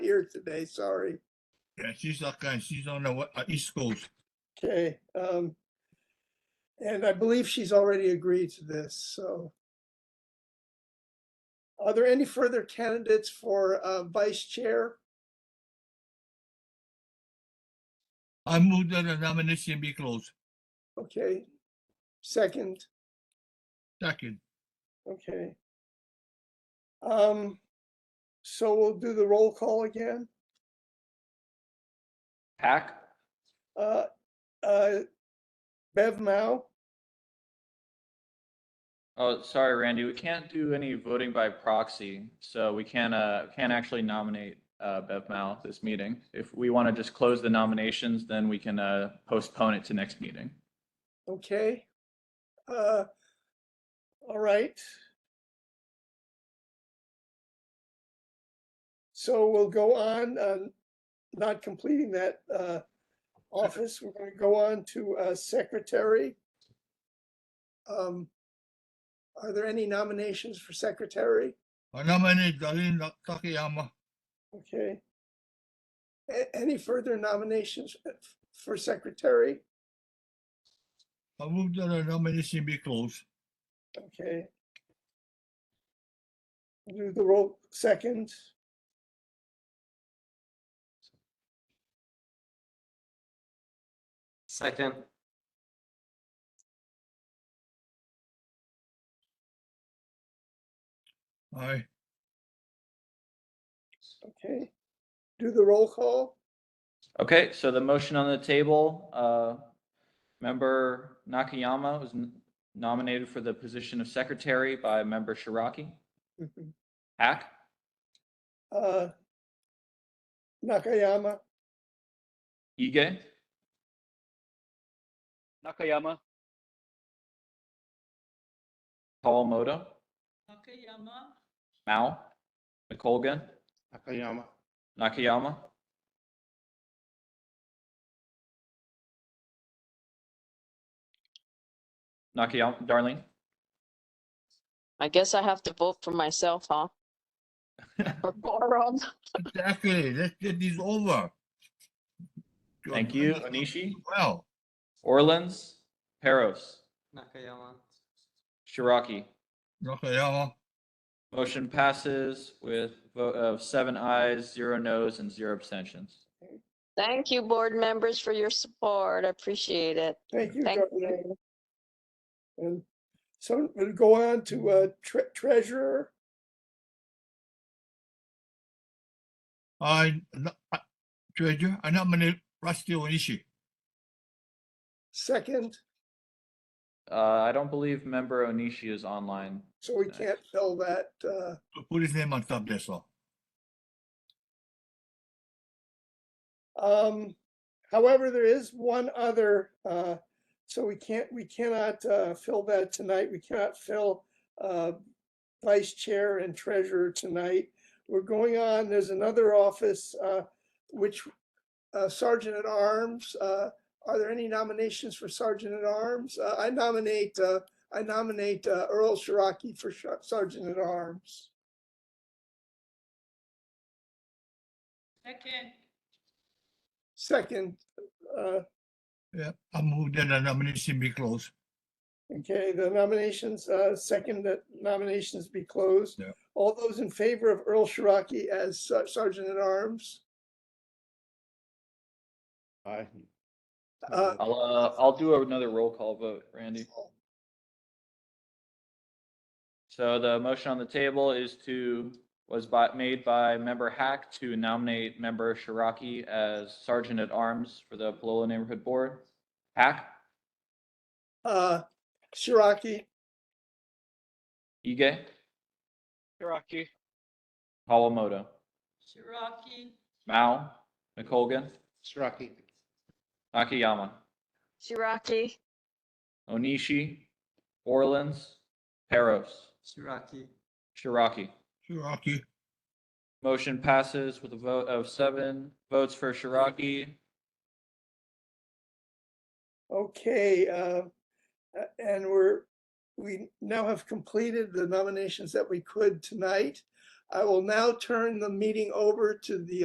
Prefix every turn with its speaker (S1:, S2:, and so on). S1: here today, sorry.
S2: Yeah, she's not going, she's on the, we- uh, East Coast.
S1: Okay, um, and I believe she's already agreed to this, so. Are there any further candidates for, uh, vice chair?
S2: I move that the nomination be closed.
S1: Okay. Second,
S2: Second,
S1: okay. Um, so we'll do the roll call again.
S3: Hack,
S1: Uh, uh, Bev Mao,
S3: oh, sorry, Randy, we can't do any voting by proxy, so we can't, uh, can't actually nominate, uh, Bev Mal at this meeting. If we want to just close the nominations, then we can, uh, postpone it to next meeting.
S1: okay. Uh, all right. So we'll go on, uh, not completing that, uh, office. We're gonna go on to, uh, secretary. Um, are there any nominations for secretary?
S2: I nominate Darlene Ta- Takayama.
S1: Okay. A- any further nominations uh, f- for secretary?
S2: I move that the nomination be closed.
S1: Okay. Do the roll second.
S4: Second,
S2: Aye.
S1: Okay. Do the roll call.
S3: Okay, so the motion on the table, uh, member Nakayama was n- nominated for the position of secretary by member Shiraki.
S1: Mhm.
S3: Hack,
S1: Uh, Nakayama,
S3: Ige,
S5: Nakayama,
S3: Kawamoto,
S6: Nakayama,
S3: Mao, McColgan,
S7: Nakayama.
S3: Nakayama. Nakayama, Darlene.
S6: I guess I have to vote for myself, huh? For quorum.
S2: Exactly, let's get this over.
S3: Thank you, Anishi,
S2: Well,
S3: Orleans, Peros,
S4: Nakayama.
S3: Shiraki.
S2: Nakayama,
S3: Motion passes with vote of seven ayes, zero noes, and zero abstentions.
S6: Thank you, board members, for your support. I appreciate it.
S1: thank you.
S6: Thank
S1: Darlene.
S6: you.
S1: And so we'll go on to uh, tre- treasurer.
S2: I, no- I- Treasurer, I nominate Rusty Onishi.
S1: Second,
S3: Uh, I don't believe member Onishi is online.
S1: so we can't fill that. uh,
S2: Put his name on top, that's all.
S1: Um, however, there is one other, uh, so we can't, we cannot, uh, fill that tonight. We cannot fill, uh, vice chair and treasurer tonight. We're going on, there's another office, uh, which, uh, sergeant at arms, uh, are there any nominations for sergeant at arms? Uh, I nominate, uh, I nominate uh, Earl Shiraki for Shar- sergeant at arms.
S6: Second.
S1: Second, uh,
S2: Yeah, I move that the nomination be closed.
S1: Okay, the nominations, uh, second that nominations be closed.
S2: Yeah.
S1: All those in favor of Earl Shiraki as ser- Sergeant at Arms?
S7: Aye.
S1: Uh,
S3: I'll, uh, I'll do another roll call vote, Randy. So the motion on the table is to, was by, made by member Hack to nominate member Shiraki as sergeant at arms for the Palolo Neighborhood Board. Hack,
S1: uh, Shiraki,
S3: Ige,
S5: Hiraki,
S3: Kawamoto,
S6: Shiraki.
S3: Mao, McColgan,
S7: Sraki.
S3: Nakayama,
S6: Shiraki.
S3: Onishi, Orleans, Peros,
S4: Shiraki.
S3: Shiraki.
S2: Shiraki,
S3: Motion passes with a vote of seven votes for Shiraki,
S1: okay, uh, uh, and we're, we now have completed the nominations that we could tonight. I will now turn the meeting over to the